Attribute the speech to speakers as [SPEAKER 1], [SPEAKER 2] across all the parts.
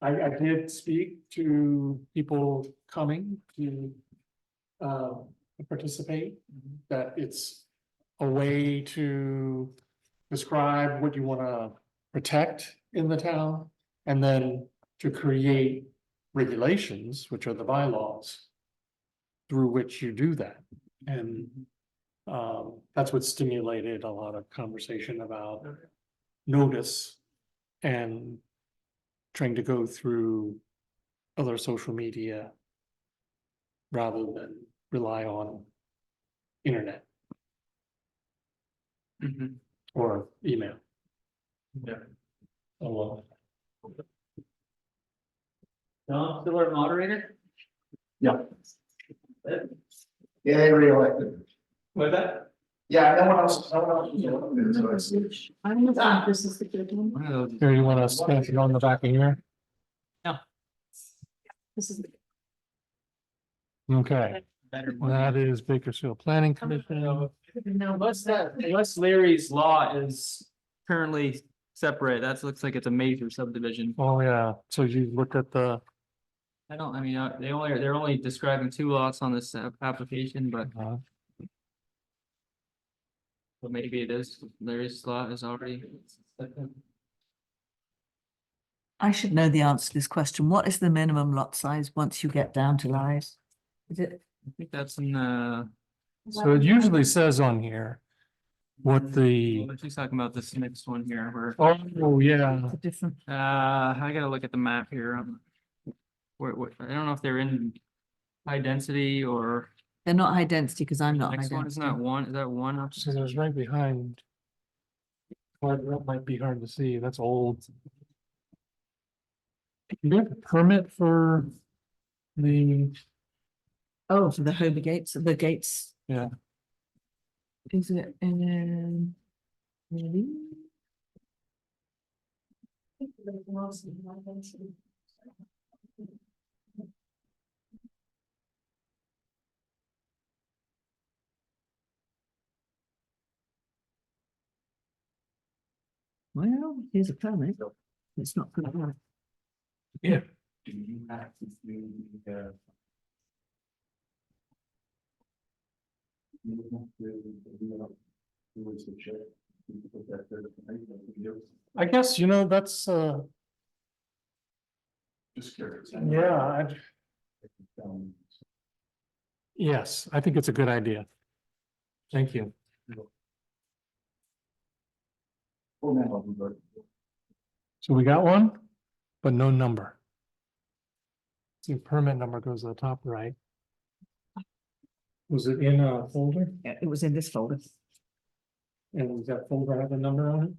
[SPEAKER 1] I, I did speak to people coming to uh, participate, that it's a way to describe what you want to protect in the town, and then to create regulations, which are the bylaws, through which you do that. And um, that's what stimulated a lot of conversation about notice and trying to go through other social media rather than rely on internet or email.
[SPEAKER 2] Mm-hmm. Yeah.
[SPEAKER 1] Oh, well.
[SPEAKER 2] Don, still our moderator?
[SPEAKER 3] Yeah. Yeah, they reelected.
[SPEAKER 2] With that?
[SPEAKER 3] Yeah, no one else, no one else. was elected, so it's-
[SPEAKER 4] I don't know if this is the good one.
[SPEAKER 1] Here, you want to stamp it on the back of here?
[SPEAKER 4] This is,
[SPEAKER 1] Okay,
[SPEAKER 2] Better.
[SPEAKER 1] that is Bakersfield Planning Commission.
[SPEAKER 2] Unless that, unless Larry's law is currently separate, that looks like it's a major subdivision.
[SPEAKER 1] Oh, yeah, so you looked at the,
[SPEAKER 2] I don't, I mean, uh, they only, they're only describing two lots on this app- application, but
[SPEAKER 1] uh,
[SPEAKER 2] but maybe it is, Larry's lot is already.
[SPEAKER 5] I should know the answer to this question. What is the minimum lot size once you get down to lies? Is it,
[SPEAKER 2] I think that's in uh, the.
[SPEAKER 1] so it usually says on here what the,
[SPEAKER 2] Well, She's talking about this next one here, where,
[SPEAKER 1] oh, yeah,
[SPEAKER 5] it's a different,
[SPEAKER 2] uh, I gotta look at the map here. um, Where, where, I don't know if they're in high density or.
[SPEAKER 5] they're not high density because I'm not. high
[SPEAKER 2] Next one, isn't that
[SPEAKER 5] density.
[SPEAKER 2] one, is that one? up-
[SPEAKER 1] so there's right behind. Well, that might be hard to see, that's old. Do you have a permit for the,
[SPEAKER 5] Oh, for the Hobie Gates, the gates.
[SPEAKER 1] Yeah.
[SPEAKER 5] Is it, and then. Maybe. Well, here's a permit. It's not good enough.
[SPEAKER 3] Do you have to do the? You have to, you know, do it to check. you put that there, I think that's what you do.
[SPEAKER 1] I guess, you know, that's, uh,
[SPEAKER 3] Just curious.
[SPEAKER 1] yeah, I'd-
[SPEAKER 3] Um,
[SPEAKER 1] yes, I think it's a good idea. Thank you.
[SPEAKER 3] Well, now, but
[SPEAKER 1] So we got one, but no number. See, permit number goes to the top right. Was it in a folder?
[SPEAKER 5] Yeah, It was in this folder.
[SPEAKER 1] And does that folder have a number on it?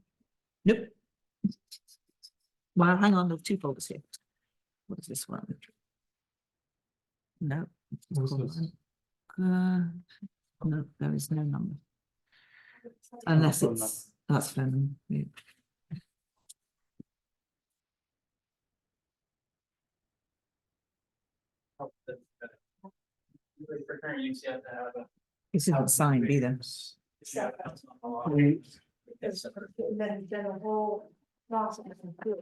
[SPEAKER 5] Nope. Well, hang on, there's two folders here. What is this one? No. it's
[SPEAKER 1] What's
[SPEAKER 5] called
[SPEAKER 1] this?
[SPEAKER 5] an- Uh, no, there is no number. Unless
[SPEAKER 1] phone
[SPEAKER 5] it's, that's phone. number, yeah.
[SPEAKER 2] For current use, you have to have a-
[SPEAKER 5] It's not signed either.
[SPEAKER 2] Yeah, that's not the law.
[SPEAKER 1] We-
[SPEAKER 4] then, then a whole process of good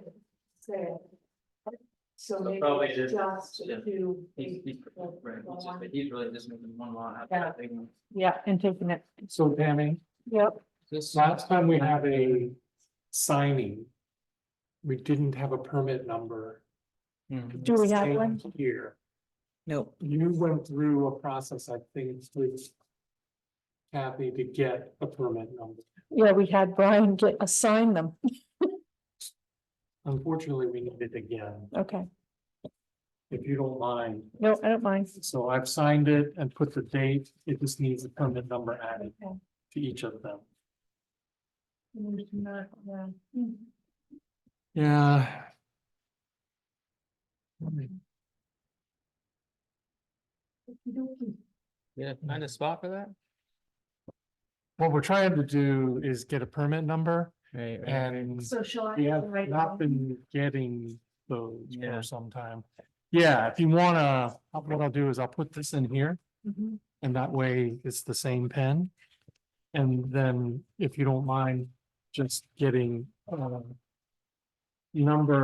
[SPEAKER 4] sale. So
[SPEAKER 2] So
[SPEAKER 4] maybe
[SPEAKER 2] probably
[SPEAKER 4] it's
[SPEAKER 2] just-
[SPEAKER 4] just
[SPEAKER 2] yeah.
[SPEAKER 4] to.
[SPEAKER 2] He's- he's- right, he's just- but he's really just making one law out of that big one.
[SPEAKER 4] Yeah, and taking it,
[SPEAKER 1] So Tammy,
[SPEAKER 4] yep.
[SPEAKER 2] This-
[SPEAKER 1] last time we had a signing. We didn't have a permit number.
[SPEAKER 2] Mhm.
[SPEAKER 4] Do we
[SPEAKER 1] It's
[SPEAKER 4] have one?
[SPEAKER 1] changed Here,
[SPEAKER 5] No,
[SPEAKER 1] you went through a process, I think, with Kathy to get a permit number.
[SPEAKER 4] Yeah, we had Brian get, assign them.
[SPEAKER 1] Unfortunately, we need it again,
[SPEAKER 4] Okay,
[SPEAKER 1] if you don't mind.
[SPEAKER 4] no, I don't mind.
[SPEAKER 1] So I've signed it and put the date. It just needs a permit number added
[SPEAKER 4] Okay.
[SPEAKER 1] to each of them.
[SPEAKER 4] Mm, not, yeah. Mm.
[SPEAKER 1] Yeah.
[SPEAKER 4] Okey-dokey.
[SPEAKER 2] Yeah, find a spot for that?
[SPEAKER 1] What we're trying to do is get a permit number
[SPEAKER 2] Right, right.
[SPEAKER 1] and
[SPEAKER 4] So shall I?
[SPEAKER 1] we have
[SPEAKER 4] write
[SPEAKER 1] not
[SPEAKER 4] down?
[SPEAKER 1] been getting those
[SPEAKER 2] Yeah.
[SPEAKER 1] for some time. Yeah, if you wanna, what I'll do is I'll put this in here
[SPEAKER 4] Mhm.
[SPEAKER 1] and that way it's the same pen. And then if you don't mind just getting, uh, um, number